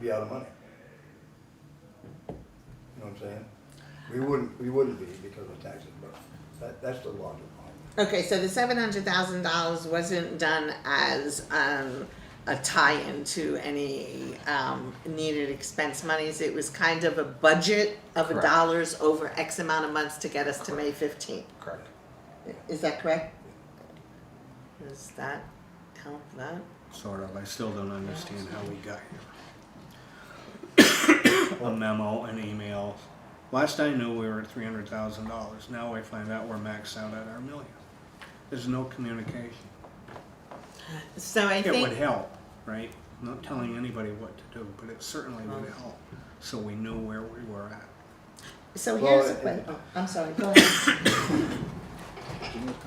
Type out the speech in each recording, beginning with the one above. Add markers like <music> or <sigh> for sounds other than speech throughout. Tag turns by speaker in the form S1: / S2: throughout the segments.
S1: be out of money. You know what I'm saying? We wouldn't, we wouldn't be because of taxes, but that, that's the logic behind it.
S2: Okay, so the seven hundred thousand dollars wasn't done as um, a tie-in to any um, needed expense monies. It was kind of a budget of
S3: Correct.
S2: dollars over X amount of months to get us to May fifteenth.
S3: Correct.
S2: Is that correct? Does that help that?
S4: Sort of. I still don't understand how we got
S1: <coughs>
S4: here. A memo, an email. Last I knew, we were at three hundred thousand dollars. Now I find out we're maxed out at our million. There's no communication.
S2: So I
S4: It would
S2: think,
S4: help, right? Not telling anybody what to do, but it certainly would help. So we knew where we were at.
S2: so
S1: Well,
S2: here's a
S1: it-
S2: question, I'm sorry, go ahead.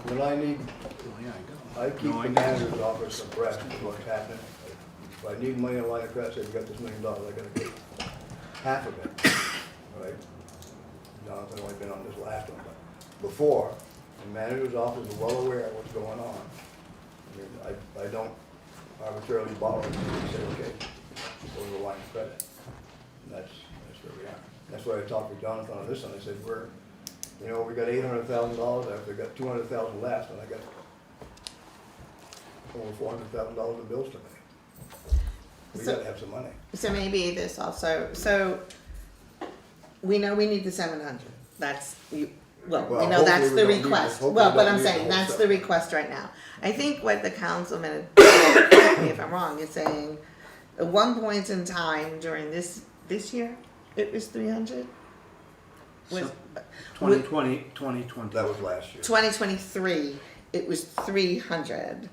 S1: When I need,
S4: Well, yeah, I
S1: I
S4: do.
S1: keep
S4: No,
S1: the
S4: don't.
S1: manager's office abreast of what's happening. If I need money in a line of credit, say, we got this million dollars, I gotta get half of it, right? Jonathan only been on this last one, but before, the manager's office is well aware of what's going on. I mean, I, I don't arbitrarily borrow, and say, okay, go to the line of credit. And that's, that's where we are. That's why I talked with Jonathan on this one, I said, we're, you know, we got eight hundred thousand dollars, I've got two hundred thousand left, and I got over four hundred thousand dollars in bills to pay. We
S2: So-
S1: gotta have some money.
S2: So maybe this also, so we know we need the seven hundred, that's, you, well, we
S1: Well,
S2: know that's
S1: hopefully
S2: the
S1: we don't need this.
S2: request,
S1: Hopefully
S2: well,
S1: we
S2: but
S1: don't
S2: I'm
S1: need the
S2: saying,
S1: whole
S2: that's the
S1: seven.
S2: request right now. I think what the councilman, <coughs> correct me if I'm wrong, is saying, at one point in time during this, this year, it was three hundred? Was,
S4: So- 2020, 2020.
S1: That was last year.
S2: 2023, it was 300.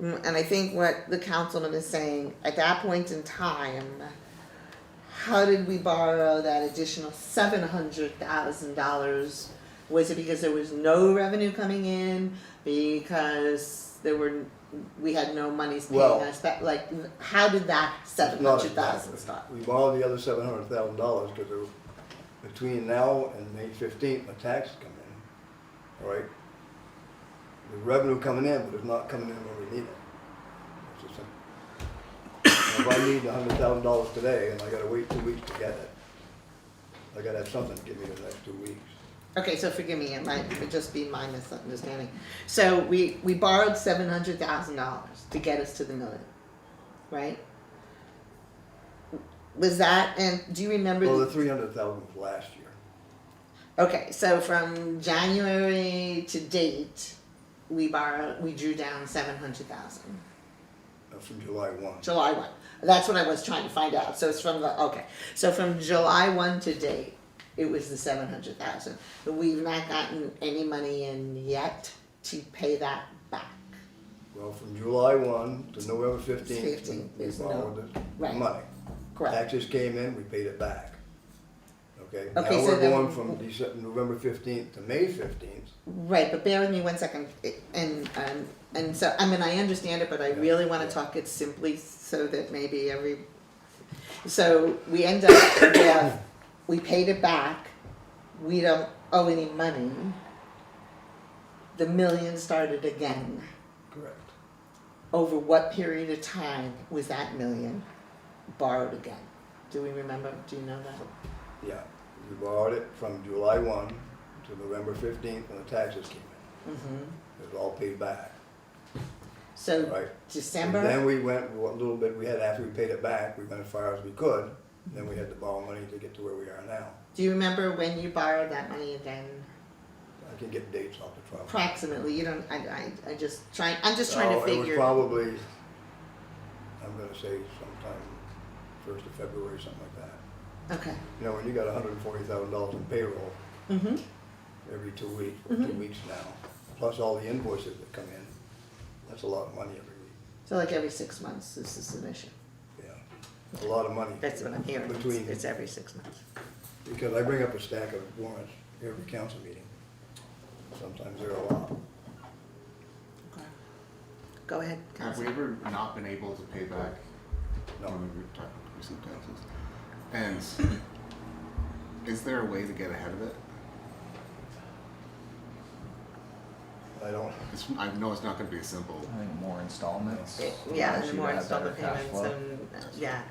S2: Mm, And I think what the councilman is saying, at that point in time, how did we borrow that additional $700,000? Was it because there was no revenue coming in? Because there were, we had no monies paying
S1: Well-
S2: us back? Like, how did that
S1: Not
S2: 700,000
S1: exactly.
S2: start?
S1: We borrowed the other seven hundred thousand dollars because between now and May fifteenth, the taxes come in, all right? The revenue coming in, but it's not coming in when we need it. It's just simple. If I need a hundred thousand dollars today and I gotta wait two weeks to get it, I gotta have something to give me the next two weeks.
S2: Okay, so forgive me, it might it just be my misunderstanding. So we, we borrowed seven hundred thousand dollars to get us to the million, right? Was that, and do you remember?
S1: Well,
S2: the-
S1: the three hundred thousand was last year.
S2: Okay, so from January to date, we borrowed, we drew down seven hundred thousand.
S1: uh, from July one.
S2: July one. That's what I was trying to find out. So it's from the okay. So from July one to date, it was the seven hundred thousand. We've not gotten any money in yet to pay that back.
S1: Well, from July one to November fifteenth,
S2: 15th,
S1: we
S2: there's no-
S1: borrowed the
S2: right.
S1: money.
S2: Correct.
S1: Taxes came in, we paid it back. Okay, now
S2: Okay, so
S1: we're
S2: then-
S1: going from December, November fifteenth to May fifteenth.
S2: Right, but bear with me one second. It- And um, and so I mean I understand it, but I really want to
S1: Yeah.
S2: talk it simply so that maybe every. So we end up with we paid it back. We don't owe any money. The million started again.
S1: Correct.
S2: over what period of time was that million borrowed again? Do we remember? Do you know that?
S1: Yeah, we borrowed it from July one to November fifteenth when the taxes came in. It was all paid back,
S2: Mm-hmm. So
S1: right? And
S2: December.
S1: Then we went, what little bit we had after we paid it back, we went as far as we could, then we had to borrow money to get to where we are now.
S2: Do you remember when you borrowed that money again?
S1: I can get dates off the top.
S2: Approximately. You don't. I. I, I just trying. I'm just trying
S1: Oh,
S2: to
S1: It was
S2: figure.
S1: probably, I'm gonna say sometime first of February, something like that.
S2: okay.
S1: You know, when you got hundred and forty thousand dollars in payroll
S2: Mm-hmm.
S1: every two weeks, two weeks now, plus all the invoices that come in, that's a lot of money every week,
S2: So like every six months, this is an issue.
S1: yeah. A lot of money.
S2: That's what I'm hearing. It's,
S1: Between,
S2: it's every six months.
S1: because I bring up a stack of warrants every council meeting. Sometimes there are a lot.
S2: Okay. Go ahead,
S3: Have we
S2: Council.
S3: ever not been able to pay back
S1: No.
S3: when we were talking about receipt taxes? And is there a way to get ahead of it?
S1: I don't,
S3: It's, I know it's not going to be simple.
S5: I think more installments.
S2: Yeah, and
S5: Unless
S2: the
S5: you
S2: more
S5: have better
S2: installment
S5: cash
S2: payments
S5: flow.
S2: and uh, yeah.